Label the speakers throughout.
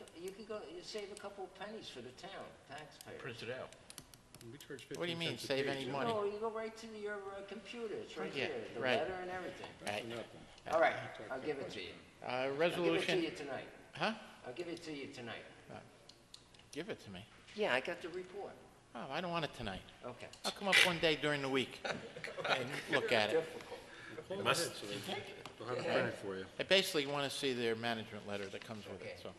Speaker 1: a, you save a couple pennies for the town taxpayer.
Speaker 2: Print it out.
Speaker 3: We charge
Speaker 4: What do you
Speaker 3: 15
Speaker 4: mean,
Speaker 3: cents a
Speaker 4: save
Speaker 3: page,
Speaker 4: any
Speaker 3: yeah.
Speaker 4: money?
Speaker 1: No, you go right to your uh, computer, it's right
Speaker 4: Yeah,
Speaker 1: here, the
Speaker 4: right.
Speaker 1: letter and everything.
Speaker 4: Right.
Speaker 3: Nothing.
Speaker 1: All right, I'll give it to you.
Speaker 4: Uh,
Speaker 1: I'll give it to
Speaker 4: resolution,
Speaker 1: you tonight.
Speaker 4: huh?
Speaker 1: I'll give it to you tonight.
Speaker 4: Give it to me.
Speaker 1: Yeah, I got the report.
Speaker 4: Oh, I don't want it tonight.
Speaker 1: Okay.
Speaker 4: I'll come up one day during the week and look at it.
Speaker 1: Difficult.
Speaker 3: Call
Speaker 2: must-
Speaker 3: ahead, so they- They'll have it printed for you.
Speaker 4: I basically want to see their management letter that comes with it, so.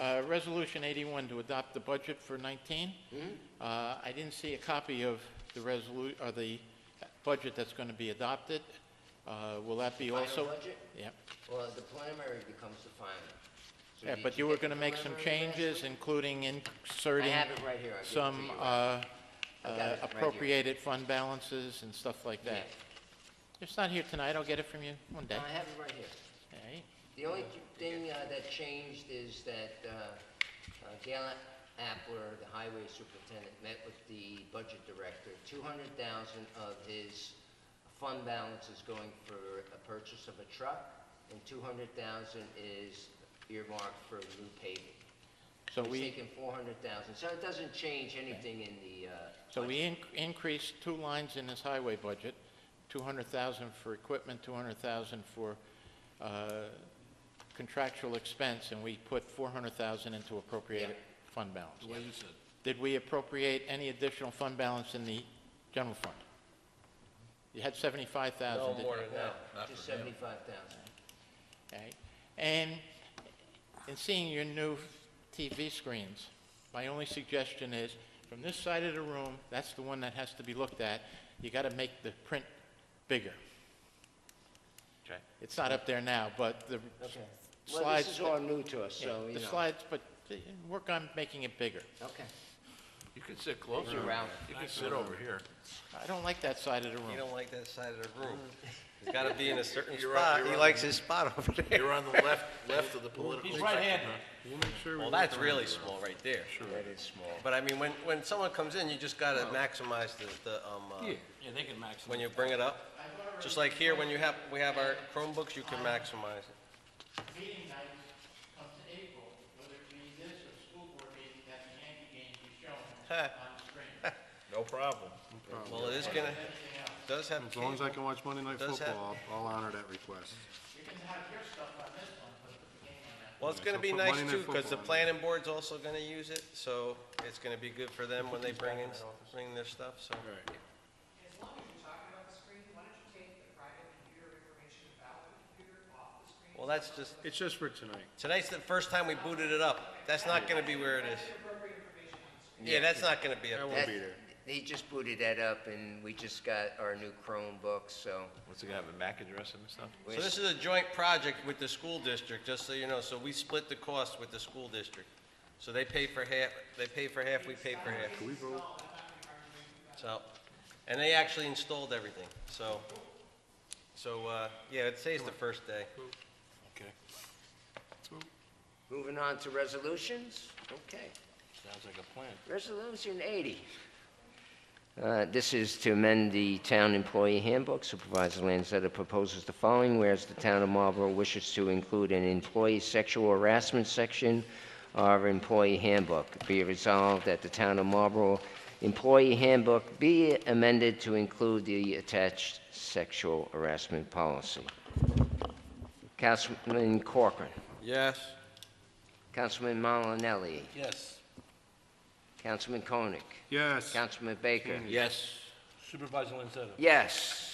Speaker 4: Uh, Resolution 81 to adopt the budget for 19.
Speaker 1: Mm-hmm.
Speaker 4: Uh, I didn't see a copy of the resolu, or the budget that's going to be adopted. Uh, Will that be
Speaker 1: Final
Speaker 4: also?
Speaker 1: budget?
Speaker 4: Yeah,
Speaker 1: Well, the preliminary becomes the final. So
Speaker 4: yeah,
Speaker 1: did
Speaker 4: but you were
Speaker 1: get
Speaker 4: going to
Speaker 1: the
Speaker 4: make some
Speaker 1: preliminary last
Speaker 4: changes,
Speaker 1: week?
Speaker 4: including
Speaker 1: I
Speaker 4: inserting
Speaker 1: have it right here. I'll give it to
Speaker 4: some
Speaker 1: you.
Speaker 4: uh,
Speaker 1: I got
Speaker 4: uh,
Speaker 1: it right here.
Speaker 4: appropriated fund balances and stuff like that. It's not here tonight, I'll get it from you one
Speaker 1: No,
Speaker 4: day.
Speaker 1: I have it right here.
Speaker 4: All right.
Speaker 1: The only thing uh, that changed is that uh, uh, Gail Appler, the highway superintendent, met with the budget director. Two hundred thousand of his fund balance is going for a purchase of a truck, and two hundred thousand is earmarked for new paving.
Speaker 4: So
Speaker 1: He's
Speaker 4: we,
Speaker 1: taking four hundred thousand, so it doesn't change anything in the, uh,
Speaker 4: so we in- increased two lines in this highway budget, 200,000 for equipment, 200,000 for uh, contractual expense, and we put 400,000 into appropriated fund balance.
Speaker 2: way you said.
Speaker 4: Did we appropriate any additional fund balance in the general fund? You had 75,000. didn't you?
Speaker 1: no,
Speaker 2: Not
Speaker 1: just
Speaker 2: for him.
Speaker 1: seventy-five thousand.
Speaker 4: Okay. And in seeing your new TV screens, my only suggestion is, from this side of the room, that's the one that has to be looked at, you got to make the print bigger.
Speaker 2: Okay.
Speaker 4: It's not up there now, but the
Speaker 1: Okay. Well,
Speaker 4: slides...
Speaker 1: this is all new to us,
Speaker 4: yeah,
Speaker 1: so, you
Speaker 4: The
Speaker 1: know.
Speaker 4: slides, but uh, work on making it bigger.
Speaker 1: Okay.
Speaker 2: You can sit closer.
Speaker 1: Thank you, Ralph.
Speaker 2: You can sit over here.
Speaker 4: I don't like that side of the
Speaker 5: You
Speaker 4: room.
Speaker 5: don't like that side of the room. He's got to be in a certain
Speaker 2: You're up-
Speaker 5: spot.
Speaker 2: you're
Speaker 5: He
Speaker 2: up.
Speaker 5: likes his spot over there.
Speaker 2: You're on the left, left of the political. He's right-handed.
Speaker 3: We'll make sure we
Speaker 5: Well,
Speaker 3: work
Speaker 5: that's
Speaker 3: around
Speaker 5: really
Speaker 3: it.
Speaker 5: small right there.
Speaker 1: That is small.
Speaker 5: But I mean, when, when someone comes in, you just got to maximize the, the, um, uh,
Speaker 6: Yeah, they can maximize.
Speaker 5: when you bring it up. Just like here, when you have, we have our Chromebooks, you can maximize it.
Speaker 4: meeting night comes April, whether it be this or school board meeting, that the Yankee game be shown on the screen.
Speaker 2: No problem.
Speaker 5: Well, it is going to, does have,
Speaker 3: As long as I
Speaker 5: cable.
Speaker 3: can watch Monday Night
Speaker 5: Does
Speaker 3: Football, I'll I'll honor that request.
Speaker 4: You can have your stuff on this one, but the game on that.
Speaker 5: well, it's
Speaker 3: Yeah,
Speaker 5: going
Speaker 3: so
Speaker 5: to be
Speaker 3: put
Speaker 5: nice
Speaker 3: Monday Night
Speaker 5: too,
Speaker 3: Football on
Speaker 5: because the
Speaker 3: there.
Speaker 5: planning board's also going to use it. So it's going to be good for them when they bring in, bring their stuff,
Speaker 7: As
Speaker 5: so.
Speaker 7: long as you're talking about the screen, why don't you take the private computer information about the computer off the screen?
Speaker 5: Well, that's just,
Speaker 3: It's just for tonight.
Speaker 5: Tonight's the first time we booted it up. That's not gonna be where it is. Yeah, that's not gonna be
Speaker 3: That
Speaker 5: up.
Speaker 1: That-
Speaker 3: won't be there.
Speaker 1: They just booted that up, and we just got our new Chromebooks, so
Speaker 2: What's it gonna have, a MAC address and stuff?
Speaker 1: we're
Speaker 5: So this is a joint project with the school district, just so you know. So we split the cost with the school district. So they pay for half, they pay for half, we pay for half.
Speaker 3: Can we vote?
Speaker 5: So, and they actually installed everything, so, so, uh, yeah, it says the first day.
Speaker 2: Okay.
Speaker 1: moving on to resolutions. Okay.
Speaker 2: Sounds like a plan.
Speaker 1: Resolution 80. Uh, This is to amend the town employee handbook. Supervisor Lanzetta proposes the following, whereas the town of Marlborough wishes to include an employee sexual harassment section of our employee handbook. Be it resolved that the town of Marlborough employee handbook be amended to include the attached sexual harassment policy. Councilman Corcoran,
Speaker 5: Yes.
Speaker 1: Councilman Malinelli,
Speaker 5: Yes.
Speaker 1: Councilman Koenig,
Speaker 3: Yes.
Speaker 1: Councilman Baker.
Speaker 2: Yes. Supervisor Lanzetta.
Speaker 1: Yes.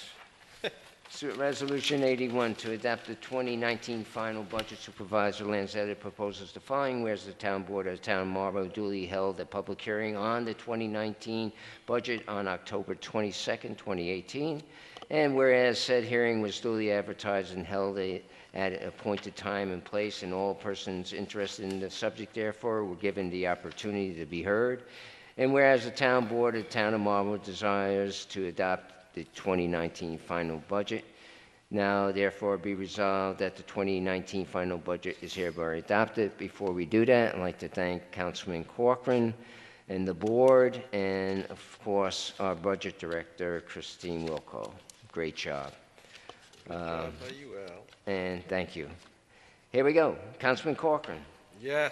Speaker 1: So, Resolution 81, to adopt the 2019 final budget Supervisor Lanzetta proposes the following, whereas the Town Board of the Town of Marlborough duly held a public hearing on the 2019 budget on October 22nd, 2018, and whereas said hearing was duly advertised and held a- at an appointed time and place, and all persons interested in the subject therefore were given the opportunity to be heard, and whereas the town board of the town of Marlborough desires to adopt the 2019 final budget, now therefore be resolved that the 2019 final budget is hereby adopted. Before we do that, I'd like to thank Councilman Corcoran and the board, and of course, our budget director, Christine Wilco. Great job,
Speaker 5: you, Al.
Speaker 1: and thank you. Here we go, Councilman Corcoran.
Speaker 5: Yes.